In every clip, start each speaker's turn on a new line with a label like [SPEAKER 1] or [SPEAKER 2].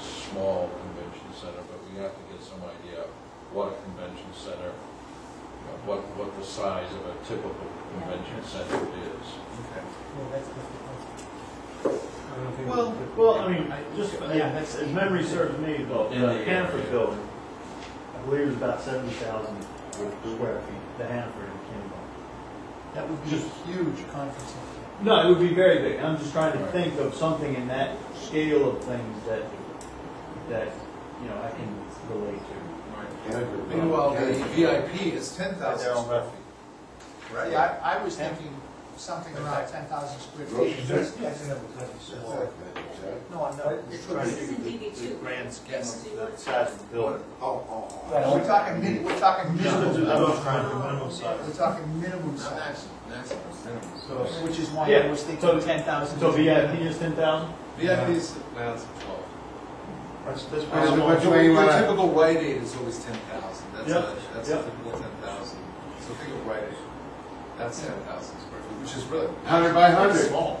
[SPEAKER 1] small convention center, but we have to get some idea of what a convention center, you know, what, what the size of a typical convention center is.
[SPEAKER 2] Well, that's just
[SPEAKER 3] Well, well, I mean, I just, yeah, that's, if memory serves me, though,
[SPEAKER 1] Yeah.
[SPEAKER 3] the Hanford building, I believe is about seventy thousand square feet, the Hanford in Kimball.
[SPEAKER 2] the- that would be a huge conference center.
[SPEAKER 3] No, it would be very big, I'm just trying to
[SPEAKER 1] Right.
[SPEAKER 3] think of something in that scale of things that, that, you know, I can relate to.
[SPEAKER 4] Meanwhile, the VIP is ten thousand square feet.
[SPEAKER 5] Right.
[SPEAKER 4] Yeah, I, I was thinking something around ten thousand square feet.
[SPEAKER 5] That's-
[SPEAKER 4] No, I'm not.
[SPEAKER 6] This is DB2.
[SPEAKER 5] grand scheme
[SPEAKER 6] of the
[SPEAKER 5] size of the building. Oh, oh,
[SPEAKER 4] Right, We're talking min, we're talking minimum, we're talking minimum size,
[SPEAKER 5] That's, that's minimum.
[SPEAKER 4] which is why I
[SPEAKER 3] Yeah,
[SPEAKER 4] was thinking
[SPEAKER 3] so-
[SPEAKER 4] ten thousand.
[SPEAKER 3] So VIP is ten thousand?
[SPEAKER 5] VIP is, well, it's twelve. The typical Rite Aid is always ten thousand, that's
[SPEAKER 3] Yep,
[SPEAKER 5] a, that's a
[SPEAKER 3] yep.
[SPEAKER 5] typical ten thousand. So think of Rite Aid, that's ten thousand square feet, which is really.
[SPEAKER 7] Hundred by
[SPEAKER 5] It's
[SPEAKER 7] hundred.
[SPEAKER 5] Small.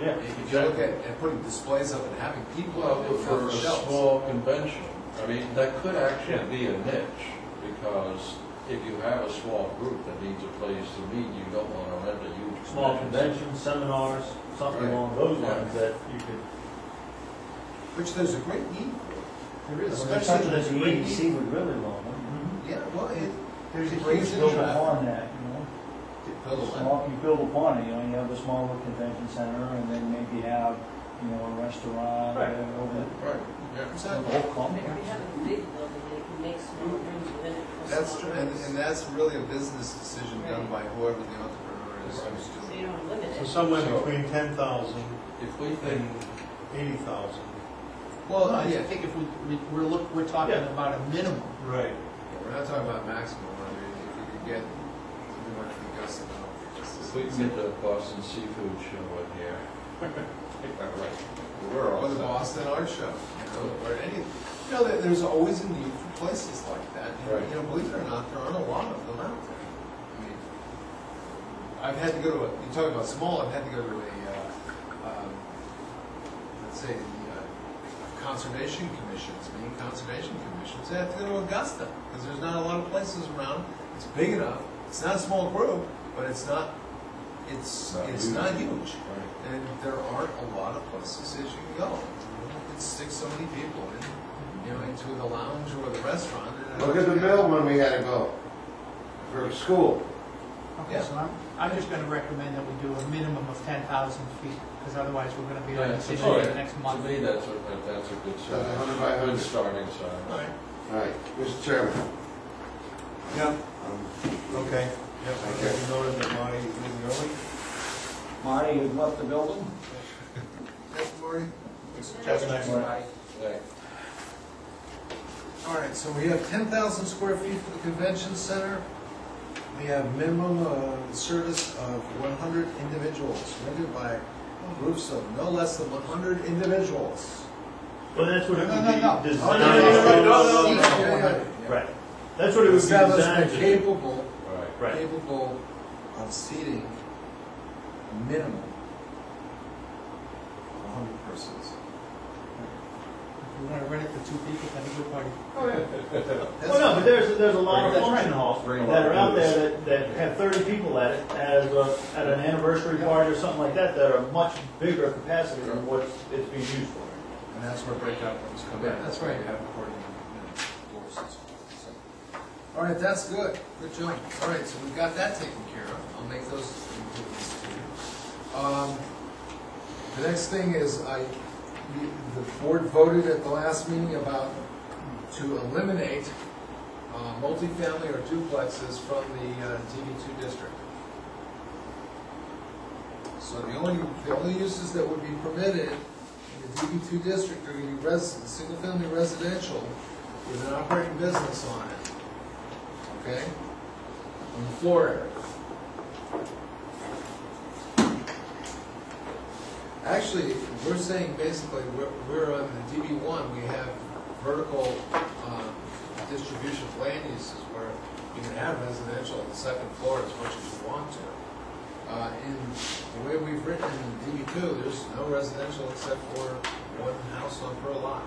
[SPEAKER 3] Yeah.
[SPEAKER 5] If you look at, and putting displays up and having people
[SPEAKER 1] Well,
[SPEAKER 5] out there
[SPEAKER 1] for
[SPEAKER 5] for
[SPEAKER 1] a
[SPEAKER 5] shelves.
[SPEAKER 1] small convention, I mean, that could actually be a niche, because if you have a small group that needs a place to meet, you don't want to rent a huge.
[SPEAKER 3] Small
[SPEAKER 1] center.
[SPEAKER 3] conventions, seminars, something
[SPEAKER 1] Right.
[SPEAKER 3] along those
[SPEAKER 1] Yeah.
[SPEAKER 3] lines that you could.
[SPEAKER 5] Which there's a great need for. There is. Especially
[SPEAKER 2] Something that the EDC would really want,
[SPEAKER 5] Yeah, well, it,
[SPEAKER 2] There's a
[SPEAKER 5] It brings
[SPEAKER 2] huge
[SPEAKER 5] in
[SPEAKER 2] build
[SPEAKER 5] traffic.
[SPEAKER 2] upon that, you know?
[SPEAKER 5] build a lot.
[SPEAKER 2] Small, you build upon it, you know, you have a smaller convention center and then maybe have, you know, a restaurant
[SPEAKER 3] Right.
[SPEAKER 2] uh, over
[SPEAKER 1] Right,
[SPEAKER 2] the,
[SPEAKER 1] yeah.
[SPEAKER 2] the whole
[SPEAKER 6] We
[SPEAKER 2] complex.
[SPEAKER 6] have a big building, it makes more rooms within it. for
[SPEAKER 5] That's
[SPEAKER 6] small
[SPEAKER 5] true, and,
[SPEAKER 6] rooms.
[SPEAKER 5] and that's really a business decision done by whoever the entrepreneur is who's
[SPEAKER 6] So
[SPEAKER 5] doing
[SPEAKER 6] you don't limit it.
[SPEAKER 1] Somewhere between ten thousand. If we think,
[SPEAKER 4] Well, I
[SPEAKER 5] Yeah.
[SPEAKER 4] think if we, we, we're look, we're talking
[SPEAKER 3] Yeah.
[SPEAKER 4] about a minimum.
[SPEAKER 5] it. We're not talking about maximum, I mean, if you could get, something like the Gus and all, just
[SPEAKER 1] if
[SPEAKER 5] as-
[SPEAKER 1] we can get the Boston Seafood Show in here. We're all
[SPEAKER 5] Or the
[SPEAKER 1] set.
[SPEAKER 5] Boston Art Show, you know, or any, you know, there, there's always a need for places like that. You know,
[SPEAKER 1] Right.
[SPEAKER 5] You know, believe it or not, there aren't a lot of them out there. I mean, I've had to go to, a you talk about small, I've had to go to a, uh, um, let's say, the uh, conservation commissions, Maine Conservation Commissions, I have to go to Augusta, because there's not a lot of places around. It's big enough, it's not a small group, but it's not, it's,
[SPEAKER 1] Not
[SPEAKER 5] it's
[SPEAKER 1] huge.
[SPEAKER 5] not huge.
[SPEAKER 1] Right.
[SPEAKER 5] And there aren't a lot of places that you can go. You can stick so many people in, you know, into the lounge or the restaurant. and-
[SPEAKER 7] Look at the mill when we had to go for school.
[SPEAKER 4] Okay,
[SPEAKER 5] Yeah.
[SPEAKER 4] so I'm, I'm just gonna recommend that we do a minimum of ten thousand feet, because otherwise we're gonna be on
[SPEAKER 1] Yeah,
[SPEAKER 4] the
[SPEAKER 1] so
[SPEAKER 4] decision
[SPEAKER 1] to-
[SPEAKER 4] the next
[SPEAKER 1] To
[SPEAKER 4] month.
[SPEAKER 1] me, that's a, that- that's a good
[SPEAKER 7] So the hundred by
[SPEAKER 1] sign, good
[SPEAKER 7] hundred.
[SPEAKER 1] starting
[SPEAKER 5] All
[SPEAKER 1] sign.
[SPEAKER 5] right.
[SPEAKER 7] All right, Mr. Chairman.
[SPEAKER 8] Yeah,
[SPEAKER 7] um,
[SPEAKER 8] okay. Yep,
[SPEAKER 7] Thank
[SPEAKER 8] I
[SPEAKER 7] you.
[SPEAKER 8] noted that Marty is leaving early.
[SPEAKER 2] Marty, you've left uh, the building?
[SPEAKER 5] Next, Marty?
[SPEAKER 1] Like,
[SPEAKER 5] All right, so we have ten thousand square feet for the convention center. We have minimum uh, service of one hundred individuals, rendered by groups of no less than one hundred individuals.
[SPEAKER 3] Well, that's what it
[SPEAKER 4] No,
[SPEAKER 3] would
[SPEAKER 4] no, no, no.
[SPEAKER 3] be
[SPEAKER 4] No,
[SPEAKER 3] designed.
[SPEAKER 4] no, no, no,
[SPEAKER 5] Oh, No, no,
[SPEAKER 4] Each
[SPEAKER 5] no, no, no,
[SPEAKER 4] area.
[SPEAKER 5] no.
[SPEAKER 3] Right. That's what it would be designed
[SPEAKER 5] Establishment
[SPEAKER 3] to do.
[SPEAKER 5] capable
[SPEAKER 1] Right.
[SPEAKER 3] Right.
[SPEAKER 5] capable of seating a minimum of hundred persons.
[SPEAKER 4] If we wanna rent it for two people, that'd be a good party.
[SPEAKER 3] Oh, Well, Oh, no, but there's, there's a lot of
[SPEAKER 1] Bring a-
[SPEAKER 3] function halls
[SPEAKER 1] bring a
[SPEAKER 3] that
[SPEAKER 1] lot
[SPEAKER 3] are
[SPEAKER 1] of
[SPEAKER 3] out
[SPEAKER 1] booze.
[SPEAKER 3] there that, that have thirty people at it as a, at an anniversary party or something like that, that are much bigger capacity than what it's being used for.
[SPEAKER 5] And that's where breakout rooms come in.
[SPEAKER 1] Yeah, that's right.
[SPEAKER 5] You have recording minutes, doors and so on. So, All right, that's good. Good job. All right, so we've got that taken care of. I'll make those improvements to you. Um, The next thing is I, the- the board voted at the last meeting about to eliminate uh, multifamily or duplexes from the uh, DB2 district. So the only, the only uses that would be permitted in the DB two district are gonna be resident, single-family residential with an operating business on it. Okay? On the floor area. Actually, we're saying basically, we're, we're on the DB one, we have vertical, um, distribution of land uses where you can have residential on the second floor as much as you want to. Uh, In the way we've written in DB2, there's no residential except for one house on per lot.